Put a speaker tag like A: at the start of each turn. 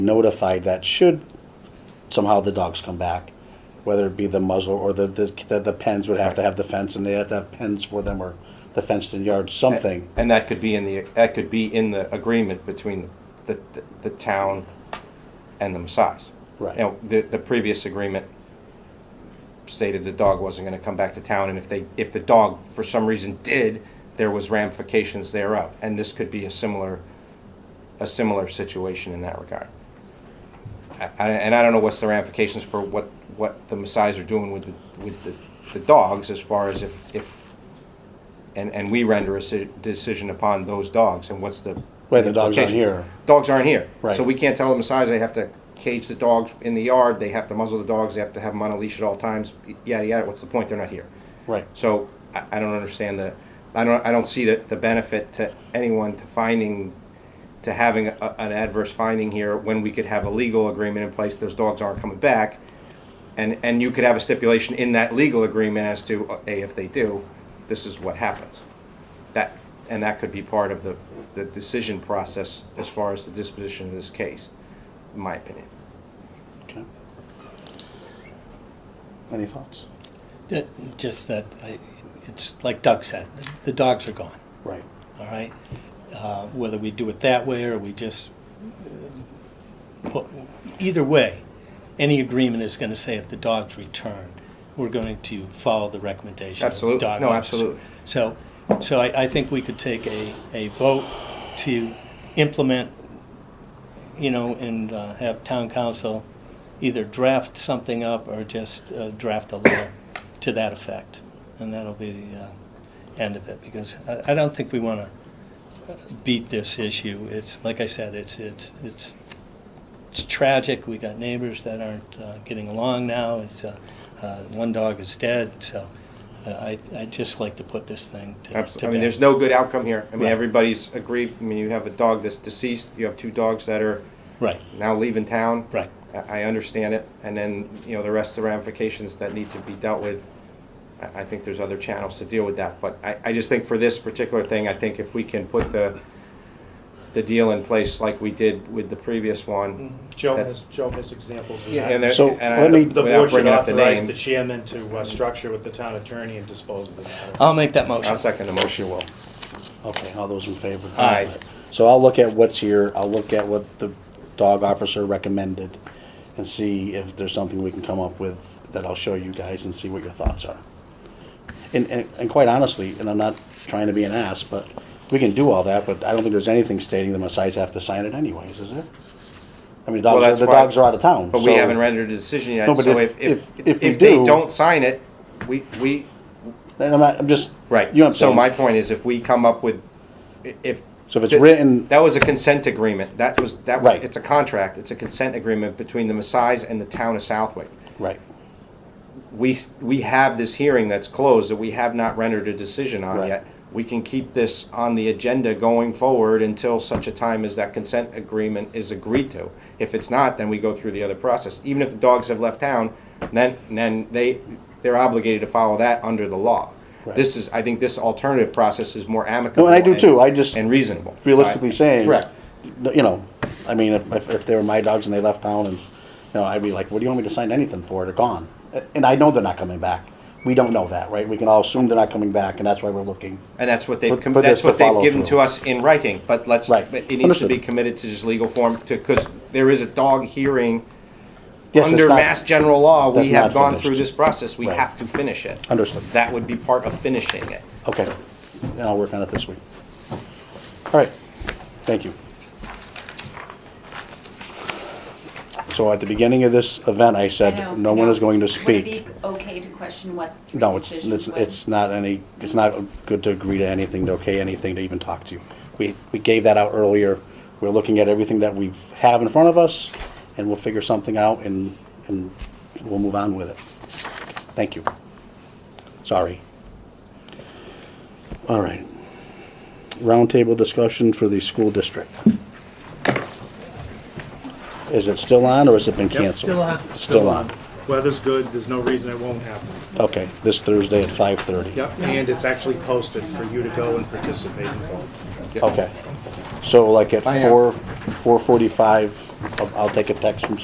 A: notified that should somehow the dogs come back, whether it be the muzzle or the, the, the- the pens would have to have the fence and they have to have pens for them or the fenced-in yard, something.
B: And that could be in the, that could be in the agreement between the, the, the town and the Messiahs.
A: Right.
B: Now, the, the previous agreement stated the dog wasn't gonna come back to town, and if they, if the dog for some reason did, there was ramifications thereof, and this could be a similar, a similar situation in that regard. I- I, and I don't know what's the ramifications for what, what the Messiahs are doing with, the- with the, the dogs as far as if, if, and, and we render a deci- decision upon those dogs, and what's the.
A: Wait, the dogs aren't
B: implication?
A: here.
B: Dogs aren't here.
A: Right.
B: So we can't tell the Messiahs they have to cage the dogs in the yard, they have to muzzle the dogs, they have to have them on a leash at all times, yada, yada, what's the point, they're not here.
A: Right.
B: So I, I don't understand the, I don't, I don't see the, the benefit to anyone to finding, to having a, an adverse finding here when we could have a legal agreement in place, those dogs aren't coming back. And, and you could have a stipulation in that legal agreement as to, uh, A, if they do, this is what happens. That, and that could be part of the, the decision process as far as the disposition of this case, in my opinion.
A: Okay. Any thoughts?
C: Ju- Just that, I- it's like Doug said, the- the dogs are gone,
A: Right.
C: all right? Uh, Whether we do it that way or we just, uh, put- either way, any agreement is going to say if the dog's returned, we're going to follow the recommendation of the
B: Absolute-
C: dog
B: no,
C: officer.
B: absolute.
C: So, so I, I think we could take a, a vote to implement, you know, and uh, have town council either draft something up or just uh, draft a letter to that effect. And that'll be the uh, end of it, because I, I don't think we want to beat this issue. It's, like I said, it's, it's, it's, it's tragic. We got neighbors that aren't uh, getting along now. It's, uh, uh, one dog is dead, so uh, I, I'd just like to put this thing to, to
B: Absolutely. I mean,
C: bed.
B: there's no good outcome here. I mean,
C: Right.
B: everybody's agreed. I mean, you have a dog that's deceased. You have two dogs that are
C: Right,
B: now leaving town.
C: right.
B: I I understand it. And then, you know, the rest of the ramifications that need to be dealt with. I- I think there's other channels to deal with that. But I, I just think for this particular thing, I think if we can put the, the deal in place like we did with the previous one.
D: Joe
B: That's-
D: has, Joe has examples of
B: Yeah, and
D: that.
B: there-
A: So,
B: and I-
A: let me-
D: The
B: without
D: board should
B: bringing up the
D: authorize
B: name,
D: the chairman to uh, structure with the town attorney and dispose of the
A: Uh,
D: matter.
C: I'll make that motion.
B: I'll second the motion. Will.
A: Okay, all those in favor?
B: Aye.
A: So I'll look at what's here, I'll look at what the dog officer recommended and see if there's something we can come up with that I'll show you guys and see what your thoughts are. And, and, and quite honestly, and I'm not trying to be an ass, but we can do all that, but I don't think there's anything stating the Messiahs have to sign it anyways, is there? I mean,
B: Well,
A: dogs, are-
B: that's
A: the
B: why-
A: dogs are out of town.
B: But we
A: so-
B: haven't rendered a decision
A: No,
B: yet.
A: but
B: So
A: if-
B: if, if,
A: if- if you
B: if they
A: do-
B: don't sign it, we, we,
A: And I'm, not- I'm just.
B: Right.
A: You know what I'm
B: So
A: saying?
B: my point is, if we come up with, i- if.
A: So if it's
B: th-
A: written-
B: That was a consent agreement. That was, that was,
A: Right.
B: it's a contract. It's a consent agreement between the Messiahs and the town of Southwick.
A: Right,
B: We, s- we have this hearing that's closed that we have not rendered a decision on
A: Right.
B: yet. We can keep this on the agenda going forward until such a time as that consent agreement is agreed to. If it's not, then we go through the other process. Even if the dogs have left town, then, then they, they're obligated to follow that under the law.
A: Right.
B: This is, I think this alternative process is more amicable.
A: No, and I do
B: and-
A: too. I just-
B: And reasonable.
A: realistically saying.
B: Correct.
A: You know, I mean, if, if- if they were my dogs and they left town and, you know, I'd be like, what do you want me to sign anything for? They're gone. And I know they're not coming back. We don't know that, right? We can all assume they're not coming back and that's why we're looking.
B: And that's what
A: For-
B: they've, com-
A: for this
B: that's
A: to
B: what they've
A: follow
B: given to
A: through.
B: us in writing, but let's,
A: Right.
B: but it needs to be
A: Understood.
B: committed to this legal form to, because there is a dog hearing
A: Yes, it's
B: under
A: not-
B: mass general law. We
A: that's not
B: have gone
A: finished.
B: through this process. We
A: Right.
B: have to finish it.
A: Understood.
B: That would be part of finishing it.
A: Okay, and I'll work on it this week. All right, thank you. So at the beginning of this event, I
E: I
A: said,
E: know,
A: no one
E: no.
A: is going to
E: Would it
A: speak.
E: be okay to question what the
A: No,
E: three
A: it's,
E: decisions
A: it's,
E: was?
A: it's not any, it's not good to agree to anything, to okay anything, to even talk to you. We, we gave that out earlier. We're looking at everything that we have in front of us, and we'll figure something out, and, and we'll move on with it. Thank you. Sorry. All right. Roundtable discussion for the school district. Is it still on, or has it been canceled? Still on.
D: Weather's good, there's no reason it won't happen.
A: Okay, this Thursday at 5:30.
D: Yep, and it's actually posted for you to go and participate and vote.
A: Okay, so like at
B: I am.
A: four, four forty-five, I'll- I'll take a text from